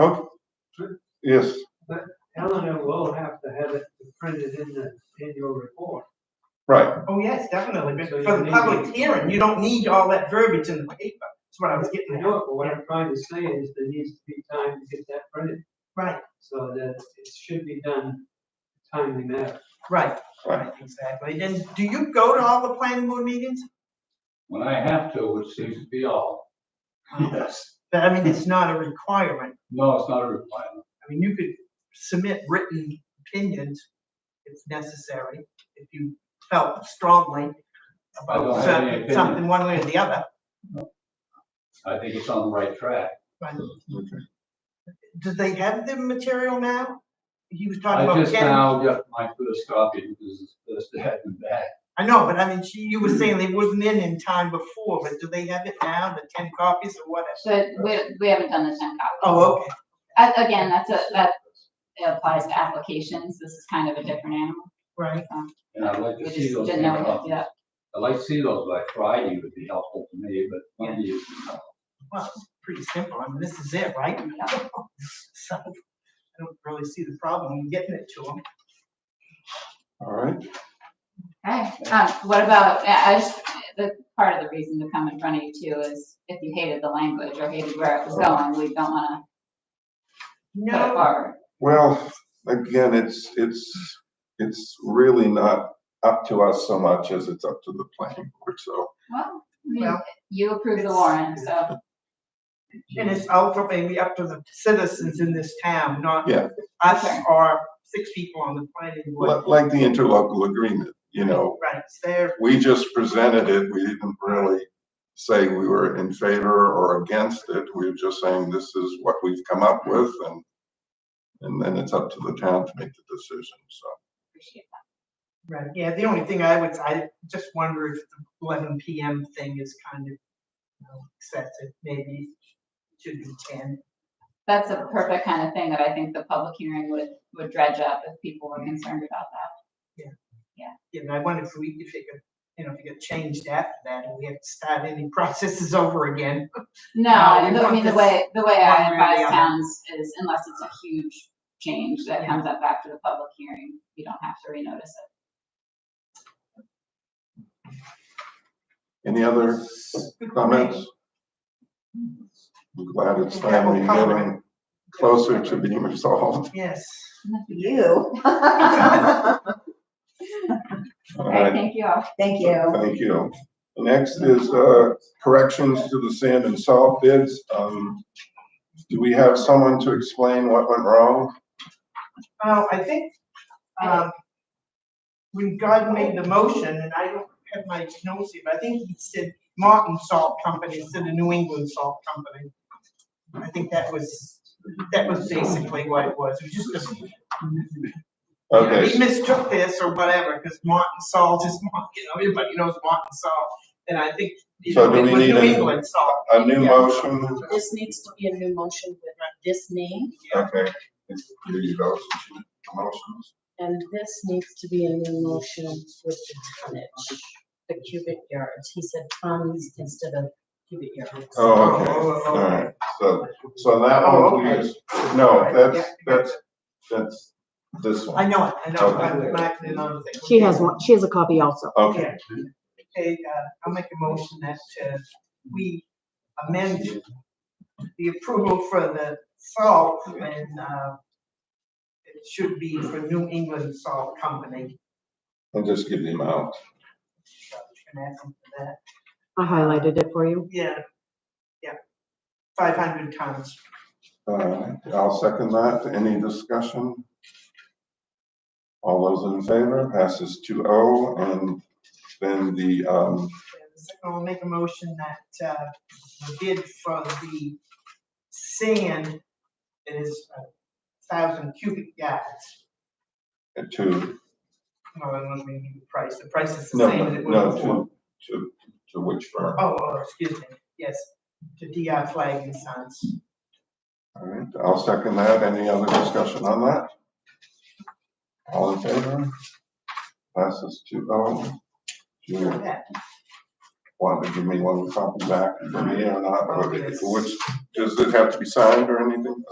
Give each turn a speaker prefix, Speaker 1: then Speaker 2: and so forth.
Speaker 1: Okay. Yes,
Speaker 2: Eleanor will have to have it printed in the annual report.
Speaker 1: right,
Speaker 3: Oh, yes, definitely, but
Speaker 2: So you
Speaker 3: for the
Speaker 2: need-
Speaker 3: public hearing, you don't need all that verbiage in the paper, that's what I was getting
Speaker 2: I
Speaker 3: at.
Speaker 2: know, it, but what I'm trying to say is there needs to be time to get that printed,
Speaker 3: Right,
Speaker 2: so that it should be done timely manner.
Speaker 3: right, right, exactly, and do you go to all the planning board meetings?
Speaker 4: When I have to, which seems to be all. Yes.
Speaker 3: But I mean, it's not a requirement,
Speaker 4: No, it's not a requirement.
Speaker 3: I mean, you could submit written opinions if necessary, if you felt strongly
Speaker 4: I don't
Speaker 3: about
Speaker 4: have any
Speaker 3: certain-
Speaker 4: opinion.
Speaker 3: something one way or the other.
Speaker 4: I think it's on the right track.
Speaker 3: Right.
Speaker 1: okay.
Speaker 3: Do they have the material now? He was talking
Speaker 4: I
Speaker 3: about
Speaker 4: just
Speaker 3: getting,
Speaker 4: now got my first copy because it's first ahead and back.
Speaker 3: I know, but I mean, she, you were saying they wasn't in in time before, but do they have it now, the ten copies or whatever?
Speaker 5: So we, we haven't done the ten copies.
Speaker 3: Oh, okay,
Speaker 5: A- Again, that's a, that applies to applications. This is kind of a different animal.
Speaker 3: right,
Speaker 4: And I'd like
Speaker 5: We
Speaker 4: to
Speaker 5: just
Speaker 4: see those.
Speaker 5: didn't know we had to do
Speaker 4: copies.
Speaker 5: that.
Speaker 4: I'd like to see those by Friday would be helpful to me, but Monday is.
Speaker 3: well, it's pretty simple, I mean, this is it, right? So, I don't really see the problem in getting it to them.
Speaker 1: all right.
Speaker 5: Okay, um, what about, I I just, the, part of the reason to come in front of you too is if you hated the language or hated where it was going, we don't wanna put it
Speaker 3: No,
Speaker 5: forward.
Speaker 1: Well, again, it's, it's, it's really not up to us so much as it's up to the planning board, so.
Speaker 5: Well, I mean,
Speaker 3: Well,
Speaker 5: you approved the
Speaker 3: it's-
Speaker 5: warrant, so,
Speaker 3: and it's ultimately up to the citizens in this town, not
Speaker 1: Yeah.
Speaker 3: us or six people on the planning board.
Speaker 1: Li- Like the interlocal agreement, you know,
Speaker 3: Right, it's there,
Speaker 1: we just presented it, we didn't really say we were in favor or against it, we were just saying this is what we've come up with and and then it's up to the town to make the decision, so.
Speaker 5: appreciate
Speaker 3: right, yeah, the only thing I would, I just wonder if the eleven PM thing is kind of you know, excessive, maybe it should be ten.
Speaker 5: that. That's a perfect kind of thing that I think the public hearing would, would dredge up if people were concerned about that.
Speaker 3: And I wonder if we, if it could, you know, if it got changed after that, and we have to start any processes over again.
Speaker 5: No,
Speaker 3: No, we
Speaker 5: I I
Speaker 3: want
Speaker 5: mean, the
Speaker 3: this
Speaker 5: way, the way
Speaker 3: one
Speaker 5: I
Speaker 3: way or the
Speaker 5: advise
Speaker 3: other.
Speaker 5: towns is unless it's a huge change that
Speaker 3: Yeah.
Speaker 5: comes up after the public hearing, you don't have to renotice it.
Speaker 1: Any other comments? I'm glad it's finally getting closer to being resolved.
Speaker 3: Yes.
Speaker 6: You.
Speaker 1: All
Speaker 5: All right,
Speaker 1: right,
Speaker 5: thank you all.
Speaker 6: Thank you.
Speaker 1: thank you. Next is, uh, corrections to the sand and salt bids. Um, do we have someone to explain what went wrong?
Speaker 3: Oh, I think, um, when God made the motion, and I don't have my notes here, but I think he said Martin Salt Company instead of New England Salt Company. I think that was, that was basically what it was, it was just a You know,
Speaker 1: Okay,
Speaker 3: We mistook this or whatever, because Martin Salt is, Mar- you know, everybody knows Martin Salt, and I think, you
Speaker 1: So
Speaker 3: know,
Speaker 1: do
Speaker 3: it
Speaker 1: we
Speaker 3: was
Speaker 1: need
Speaker 3: New
Speaker 1: a-
Speaker 3: England salt.
Speaker 1: a new motion,
Speaker 6: This needs to be a new motion with this name,
Speaker 1: okay. Do you know, motions?
Speaker 6: and this needs to be a new motion with the tonnage, the cubic yards. He said tons instead of cubic yards.
Speaker 1: Oh, okay, all right, so, so that
Speaker 3: Oh,
Speaker 1: one, we just- no, that's, that's, that's this
Speaker 3: I
Speaker 1: one.
Speaker 3: know it, I know, it, I'm marking it on the.
Speaker 7: She has one, she has a copy also.
Speaker 1: Okay,
Speaker 3: Okay, uh, I'll make a motion that, uh, we amend the approval for the salt and, uh, it should be for New England Salt Company.
Speaker 1: and just give the amount.
Speaker 3: So, can I add something to that?
Speaker 7: I highlighted it for you.
Speaker 3: Yeah, yeah, five hundred tons.
Speaker 1: Uh, I'll second that. Any discussion? All those in favor, passes 2-0, and then the, um,
Speaker 3: I'll make a motion that, uh, the bid for the sand is a thousand cubic yards.
Speaker 1: to,
Speaker 3: No, I don't mean the price, the price is the
Speaker 1: no,
Speaker 3: same as it
Speaker 1: no,
Speaker 3: was before.
Speaker 1: to, to, to which firm?
Speaker 3: Oh, oh, excuse me, yes, to DR Flag and Sons.
Speaker 1: All right, I'll second that. Any other discussion on that? All in favor? Passes 2-0. Do you
Speaker 3: That,
Speaker 1: want to give me one copy back for me or not? Or
Speaker 3: Yes.
Speaker 1: Which, does it have to be signed or anything?